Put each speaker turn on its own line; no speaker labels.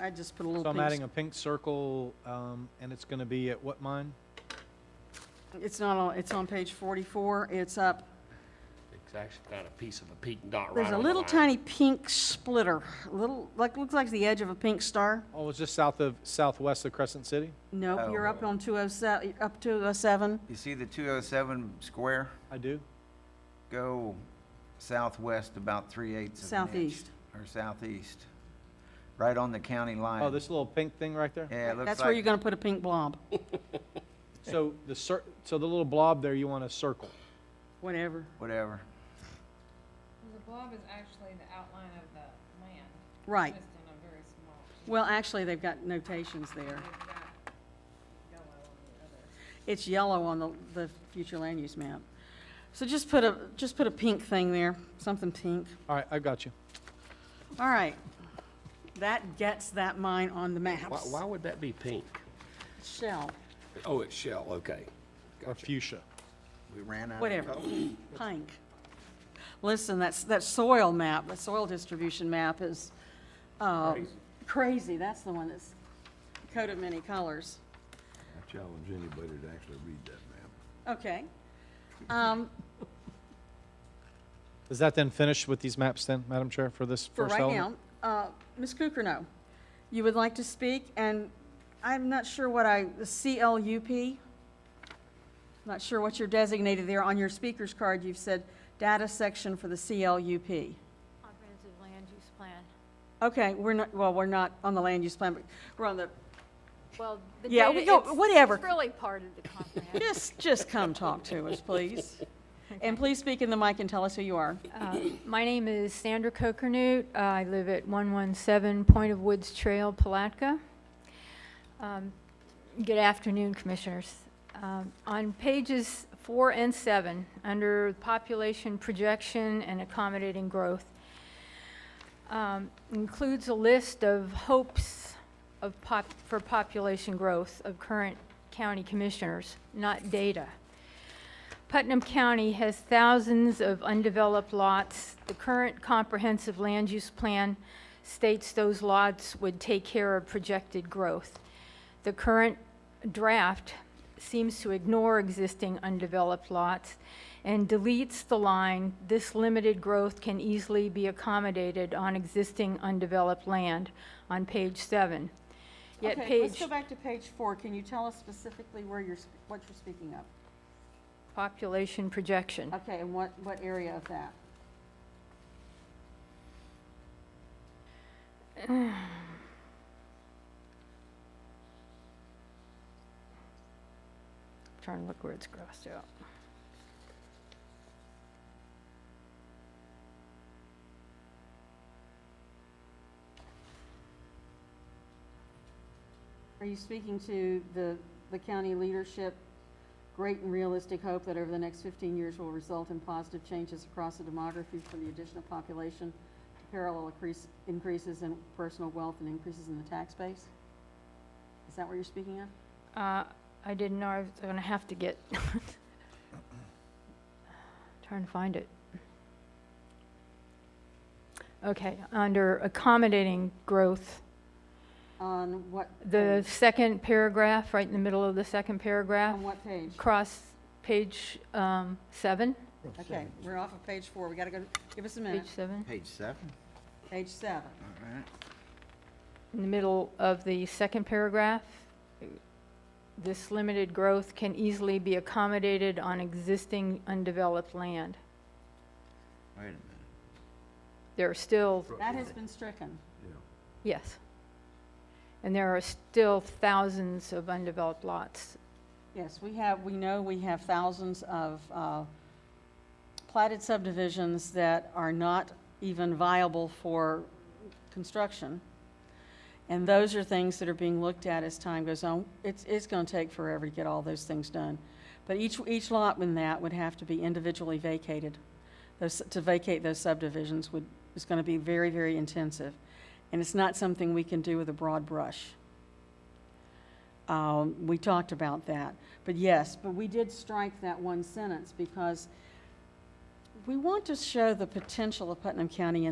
I just put a little
So I'm
pink
adding a pink circle, um, and it's gonna be at what mine?
It's not on, it's on page 44. It's up,
It's actually got a piece of a pink dot right on
there's
the
a
line.
little tiny pink splitter, little, like, looks like the edge of a pink star.
Oh, it's just south of, southwest of Crescent City?
Nope,
Oh.
you're up on 207, up 207.
You see the 207 square?
I do?
Go southwest about three eighths of an inch.
Southeast.
Or southeast, right on the county line.
Oh, this little pink thing right there?
Yeah, it looks like.
That's where you're going to put a pink blob,
So the cir, so the little blob there, you want a circle?
whatever.
Whatever.
The blob is actually the outline of the land.
Right.
Just in a very small,
Well, actually, they've got notations there.
they've got yellow on the other.
It's yellow on the, the future land use map. So just put a, just put a pink thing there, something pink.
All right, I got you.
All right. That gets that mine on the
Why,
maps.
why would that be pink?
Shell,
Oh, it's shell, okay.
Or fuchsia.
We ran out. of-
whatever, pink. Listen, that's, that soil map, that soil distribution map is, uh, crazy. That's the one that's coat of many colors.
I challenge anybody to actually read that map.
Okay. Um,
Is that then finished with these maps then, Madam Chair, for this
for
first
right
element?
now, uh, Ms. Kukrow, you would like to speak, and I'm not sure what I, the CLUP? Not sure what you're designated there. On your speaker's card, you've said data section for the CLUP.
Comprehensive land use plan.
Okay, we're not, well, we're not on the land use plan, but we're on the,
Well, the
Yeah, we
data,
go-
it's-
whatever.
It's really part of the comprehensive.
just, just come talk to us, please. And please speak in the mic and tell us who you are.
Uh, My name is Sandra Coconut. I live at 117 Point of Woods Trail, Palatka. Um, Good afternoon, Commissioners. Um, On pages four and seven, under population projection and accommodating growth, um, includes a list of hopes of pop, for population growth of current county commissioners, not data. Putnam County has thousands of undeveloped lots. The current comprehensive land use plan states those lots would take care of projected growth. The current draft seems to ignore existing undeveloped lots and deletes the line, "This limited growth can easily be accommodated on existing undeveloped land," on page seven. Yet
Okay, let's
page
go back to page four. Can you tell us specifically where you're, sp- what you're speaking of?
population projection.
Okay, and what, what area of that?
Trying to look where it's crossed out.
Are you speaking to the, the county leadership, great and realistic hope that over the next 15 years will result in positive changes across the demography from the addition of population, parallel increase, increases in personal wealth and increases in the tax base? Is that what you're speaking of?
Uh, I didn't know I was gonna have to get, trying to find it. Okay, under accommodating growth,
On what?
the
page?
second paragraph, right in the middle of the second paragraph,
On what page?
cross page um, seven,
Okay, we're off of page four. We gotta go, give us a
page
minute.
seven,
Page seven,
Page seven.
all right.
in the middle of the second paragraph. This limited growth can easily be accommodated on existing undeveloped land.
Wait a minute.
There are still
That has been stricken.
Yes. And there are still thousands of undeveloped lots.
Yes, we have, we know we have thousands of uh, platted subdivisions that are not even viable for construction. And those are things that are being looked at as time goes on. It's, it's going to take forever to get all those things done. But each, each lot in that would have to be individually vacated. Those, to vacate those subdivisions would, is going to be very, very intensive. And it's not something we can do with a broad brush. Um, We talked about that. But yes, but we did strike that one sentence because we want to show the potential of Putnam County in